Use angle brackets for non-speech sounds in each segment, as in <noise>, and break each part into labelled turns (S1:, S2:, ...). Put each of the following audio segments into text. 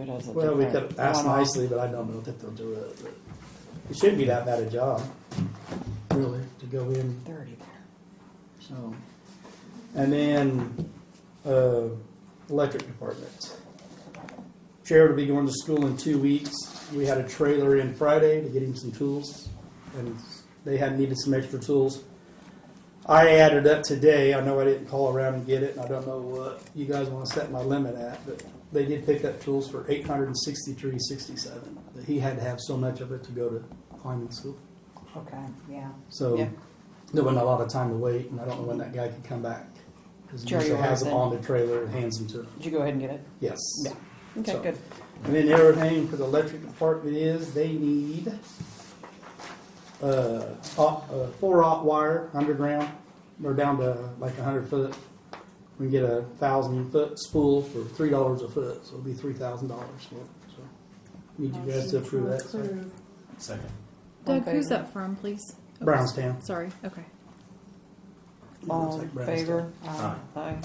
S1: it as a
S2: Well, we
S1: different
S2: could ask
S1: one-off.
S2: nicely, but I don't know that they'll do it. It shouldn't be that bad a job, really, to go in,
S1: Thirty there.
S2: so. And then, uh, electric department. Jared will be going to school in two weeks. We had a trailer in Friday to get him some tools, and they had needed some extra tools. I added up today, I know I didn't call around and get it, and I don't know what you guys wanna set my limit at, but they did pick up tools for eight hundred and sixty-three, sixty-seven. But he had to have so much of it to go to climbing school,
S1: Okay, yeah.
S2: so
S1: Yeah.
S2: there wasn't a lot of time to wait, and I don't know when that guy could come back. Cause he
S1: Sure,
S2: usually
S1: you are
S2: has them
S1: then.
S2: on the trailer and hands them to him,
S1: Did you go ahead and get it?
S2: yes.
S1: Yeah. Okay,
S2: So-
S1: good.
S2: And then the other thing for the electric department is they need uh, op- uh, four aught wire underground. They're down to like a hundred foot. We can get a thousand foot spool for three dollars a foot, so it'll be three thousand dollars. So need you guys to approve that. So,
S3: Second.
S1: Doug,
S4: Doug,
S1: Okay. who's
S4: who's that from, please?
S2: Brownstown.
S4: Sorry, okay.
S1: All
S2: Looks
S1: in
S2: like Brad's
S1: favor?
S3: Aye.
S1: Aye.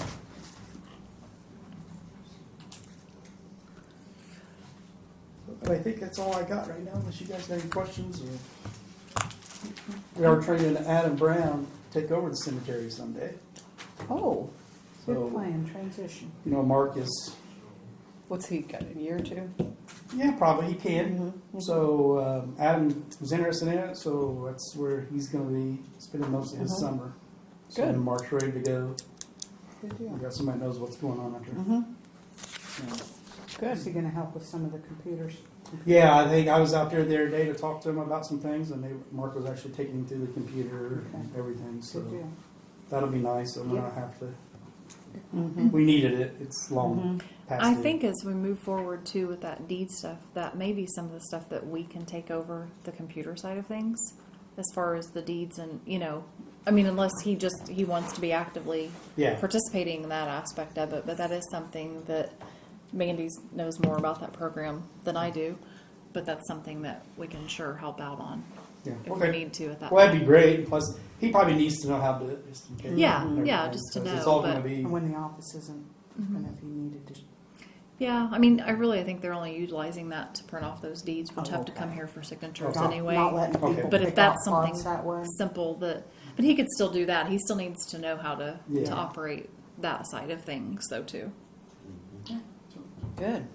S2: But I think that's all I got right now, unless you guys have any questions or. We are training Adam Brown to take over the cemetery someday.
S1: Oh,
S2: So-
S1: good plan, transition.
S2: You know, Mark is,
S1: What's he got, a year or two?
S2: yeah, probably he can.
S1: Mm-hmm.
S2: So um, Adam was interested in it, so that's where he's going to be spending most of his
S1: Mhm.
S2: summer. So
S1: Good.
S2: when Mark's ready to go.
S1: Good
S2: We
S1: deal.
S2: got somebody that knows what's going on out there.
S1: Mm-hmm,
S2: Yeah.
S5: Is he
S1: good.
S5: gonna help with some of the computers?
S2: Yeah, I think I was out there the other day to talk to him about some things, and they, Mark was actually taking him through the computer and everything. So
S5: Good deal.
S2: that'll be nice. And we don't have to.
S1: Mm-hmm.
S2: We needed it. It's long past.
S4: Mm-hmm. I
S2: due.
S4: think as we move forward too with that deed stuff, that may be some of the stuff that we can take over the computer side of things as far as the deeds and, you know, I mean, unless he just, he wants to be actively
S2: Yeah.
S4: participating in that aspect of it, but that is something that Mandy knows more about that program than I do, but that's something that we can sure help out on
S2: Yeah.
S4: if we
S2: Okay.
S4: need to at that
S2: Well,
S4: point.
S2: that'd be great. Plus, he probably needs to know how to do it just in case.
S4: Yeah,
S2: and
S4: yeah,
S2: everything,
S4: just to
S2: 'cause It's
S4: know,
S2: all going
S4: but-
S2: to be.
S5: And when the office isn't,
S4: Mm-hmm.
S5: and if he needed to,
S4: Yeah, I mean, I really think they're only utilizing that to print off those deeds, which
S5: Oh,
S4: have to come
S5: okay.
S4: here for signatures
S2: Not-
S4: anyway.
S5: not letting
S2: Okay.
S5: people
S4: But if
S5: pick out
S4: that's something-
S5: plots that way.
S4: Simple that, but he could still do that. He still needs to know how to
S2: Yeah.
S4: to operate that side of things, though, too.
S1: Good.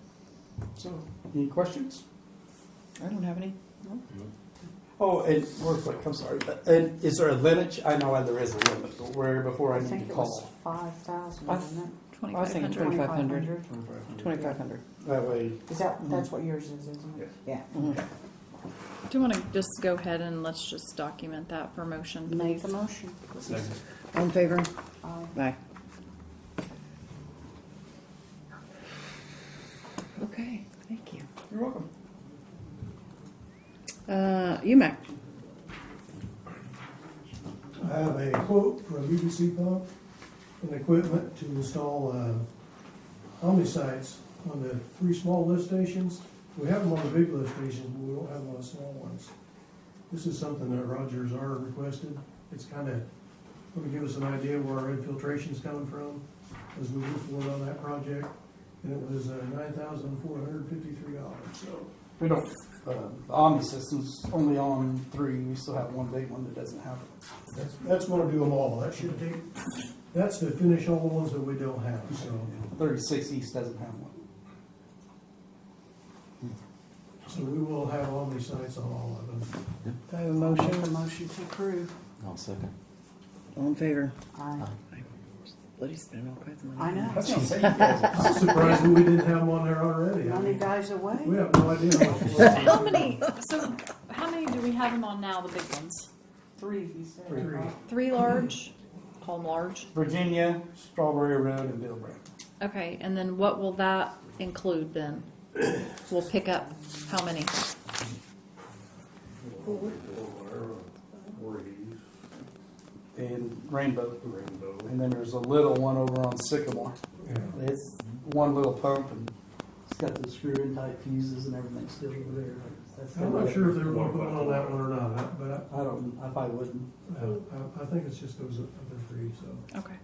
S2: So, any questions?
S1: I don't have any.
S2: Oh, and real quick, I'm sorry, but and is there a limit? I know there is a limit, but where before I
S5: I
S2: need
S5: think
S2: to
S5: it was
S2: call.
S5: five thousand,
S1: I
S5: wasn't
S4: Twenty
S1: I was
S4: five
S1: thinking
S5: it?
S4: hundred.
S1: 25. 500.
S5: 2,500.
S1: Twenty-five hundred.
S2: That way,
S5: Is that, that's what yours is, isn't it? Yeah.
S4: Do you want to just go ahead and let's just document that for motion,
S5: Make
S4: please?
S5: the motion.
S3: Second.
S1: All in favor?
S5: Aye.
S1: Aye. Okay, thank you.
S2: you're welcome.
S1: Uh, UMAC,
S6: I have a quote for a UDC pump and equipment to install uh, omnisites on the three small lift stations. We have them on the big lift stations, but we don't have them on the small ones. This is something that Rogers R requested. It's kind of, going to give us an idea where our infiltration's coming from as we move forward on that project. And it was uh, nine thousand four hundred fifty-three dollars, so.
S2: We don't, uh, the Omni system's only on three, we still have one big one that doesn't have it.
S6: That's, that's gonna do them all, that should take, that's to finish all the ones that we don't have, so.
S2: Thirty-six East doesn't have one.
S6: So we will have all these sites on all of them.
S1: I have a
S5: Make the
S1: motion,
S5: motion to approve.
S3: I'll second.
S1: all in favor?
S5: Aye.
S1: Bloody spending all kinds of money.
S5: I know.
S2: That's what I'm saying, you guys.
S6: I'm surprised that we didn't have one there already. I
S5: Money
S6: mean,
S5: guys away.
S6: We have no idea. what-
S4: <laughs> How many? So, how many do we have them on now? The big ones,
S5: Three, he said.
S2: Three.
S5: right?
S4: three large. Call them large.
S2: Virginia, Strawberry Road, and Bill Brown.
S4: Okay, and then what will that include then? We'll pick up how many?
S2: And Rainbow. Rainbow. And then there's a little one over on Sycamore.
S6: Yeah.
S2: It's one little pump and it's got the screw-in type fuses and everything still over there. That's the
S6: I'm
S2: way
S6: not
S2: it-
S6: sure if they're gonna put one on that one or not, but
S2: I don't, I probably wouldn't.
S6: I, I, I think it's just those other three, so.
S4: Okay.